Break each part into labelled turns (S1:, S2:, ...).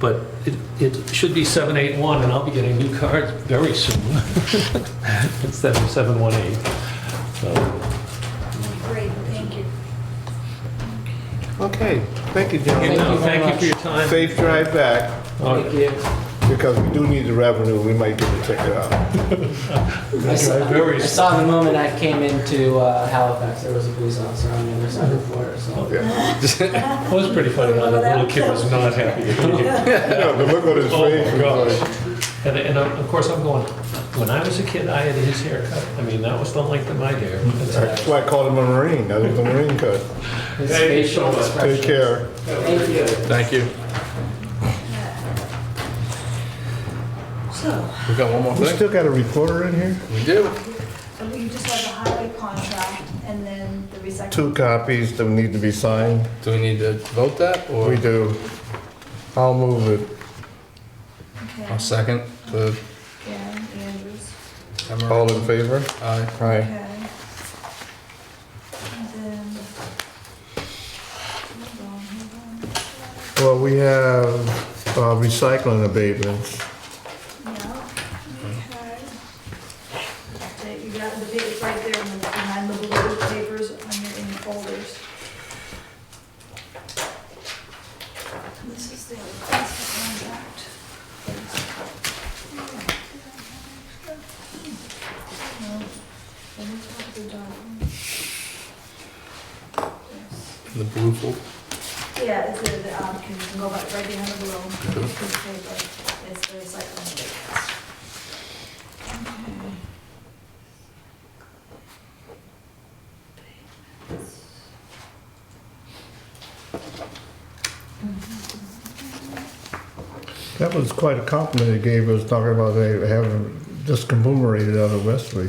S1: But it, it should be 781, and I'll be getting new cards very soon instead of 718. So,
S2: Great, thank you.
S3: Okay, thank you,
S1: you
S3: gentlemen.
S1: know,
S4: you very
S1: thank you for your time.
S3: Safe drive back,
S1: All right.
S4: Thank you.
S3: because we do need the revenue, we might get the ticket out.
S4: I saw-
S1: Very-
S4: I saw the moment I came into uh, Halifax, there was a police officer on the other side of the border, so.
S3: Yeah.
S1: It was pretty funny how that little kid was not happy to be here.
S3: Yeah, the look on his
S1: Oh,
S3: face.
S1: my
S3: was like-
S1: gosh. And, and uh, of course, I'm going, when I was a kid, I had his haircut. I mean, that was the length of my hair.
S3: That's why I called him a Marine, that was the Marine cut.
S4: His
S1: Thank you so
S4: facial
S1: much.
S4: expression.
S3: Take care.
S4: Thank you.
S5: Thank you.
S2: So,
S5: We've got one more
S3: We
S5: thing.
S3: still got a reporter in here?
S5: We do.
S2: you just have the highway contract and then the recycling.
S3: Two copies that need to be signed.
S5: Do we need to vote that or?
S3: We do. I'll move it.
S2: Okay.
S5: I'll second to
S2: Yeah, Andrews,
S5: Emerald.
S3: All in favor?
S5: Aye.
S3: Aye.
S2: okay. And then. Hold on, hold
S3: Well, we have uh, recycling abatements.
S2: on. Yeah, okay. That You got the big, it's right there in the- behind the blue papers on your, in your folders. This is the recycling contract. Oh,
S5: The blue folder.
S2: Yeah, it's the, the, um, can you go back right behind the below,
S3: Mm-hmm.
S2: piece of paper, it's the recycling abatements.
S3: That was quite a compliment he gave us, talking about they having just conglomerated out of Wesley.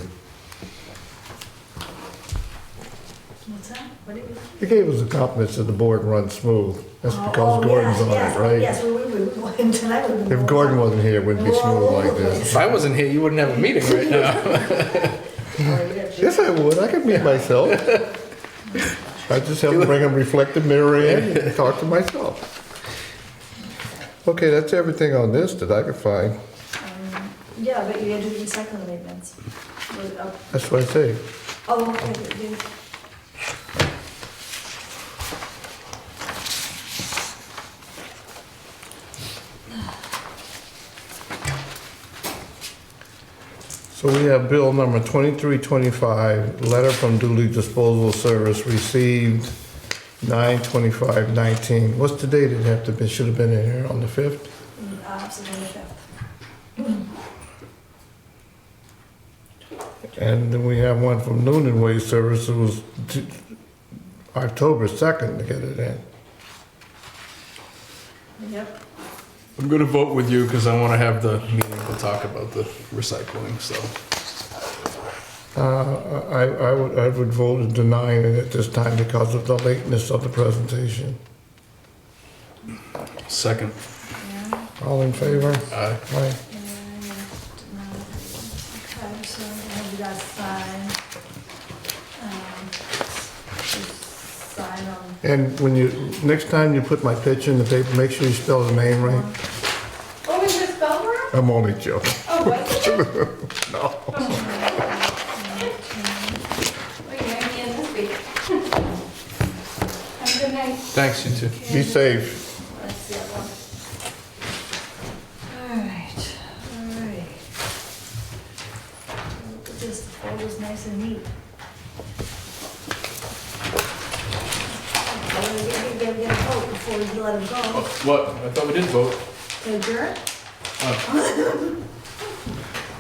S2: What's that? What did we?
S3: He gave us a compliment, said the board runs smooth. That's
S2: Oh,
S3: because
S2: oh,
S3: Gordon's
S2: yes,
S3: on
S2: yes,
S3: it, right?
S2: Yes, we, we, we, tonight we.
S3: If Gordon wasn't here, it wouldn't be smooth like this.
S5: If I wasn't here, you wouldn't have a meeting right now.
S3: Yes, I would. I could meet myself. I just have to bring a reflective mirror in and talk to myself. Okay, that's everything on this that I could find.
S2: Um, Yeah, but you had to do recycling abatements. Was it up-
S3: That's what I say.
S2: uh, Oh, okay, but you-
S3: So we have bill number 2325, letter from Dooley Disposal Service received 9/25/19. What's the date it have to be, should have been in here, on the 5th?
S2: uh, September fifth.
S3: And then we have one from Noonan Way Service, it was t- October 2nd to get it in.
S2: Yep,
S5: I'm gonna vote with you because I want to have the meeting to talk about the recycling, so.
S3: Uh, I I would, I would vote in denying it at this time because of the lateness of the presentation.
S5: Second.
S2: yeah,
S3: All in favor?
S5: Aye.
S3: Aye.
S2: and, um, okay, so have you guys sign? um, just Sign on.
S3: And when you, next time you put my picture in the paper, make sure you spell the name right.
S2: Oh, is this spell wrong?
S3: I'm only joking.
S2: Oh, what's it? Oh,
S3: No.
S2: Wait, you're gonna be in this week. Have a good night.
S5: Thanks, you two.
S3: Be safe.
S2: That's the other one. Alright, alright. Look at this, the folder's nice and neat. Oh, we gotta get, get a vote before we let him go.
S5: What? I thought we did vote.
S2: So Jared?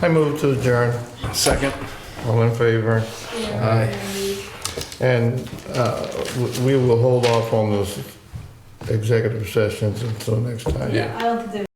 S3: I move to adjourn.
S5: Second.
S3: All in favor? And uh, w- we will hold off on those executive sessions until next time.
S5: Yeah.
S2: I don't think there's